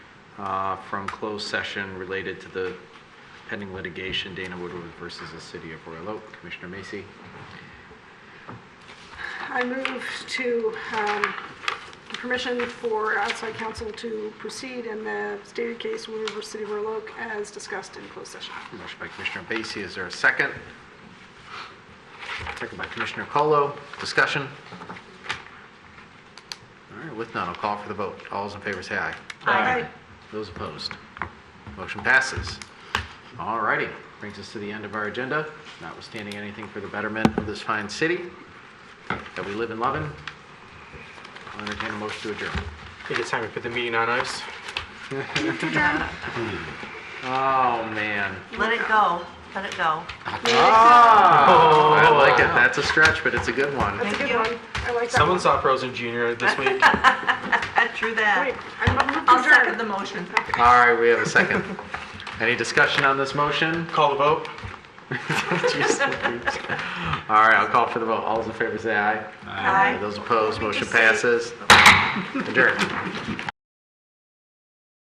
uh, from closed session related to the pending litigation Dana Woodward versus the City of Royal Oak. Commissioner Macy? I move to um, permission for outside counsel to proceed in the stated case Wood River City of Royal Oak as discussed in closed session. Motion by Commissioner Basie, is there a second? Second by Commissioner Colo, discussion? All right, with none, I'll call for the vote. All those in favor say aye. Aye. Those opposed? Motion passes. All righty, brings us to the end of our agenda, notwithstanding anything for the betterment of this fine city that we live and love in. I'll entertain a motion to adjourn. I think it's time we put the meeting on ice. Oh, man. Let it go, let it go. Oh, I like it, that's a stretch, but it's a good one. That's a Thank good you. one. I like that Someone one. saw Frozen Junior this week. True Wait, that. I'm I'll second the motion. All right, we have a second. Any discussion on this motion? Call the vote. Jeez. All right, I'll call for the vote. All those in favor say aye. Aye. Those opposed, motion passes. Adjourned.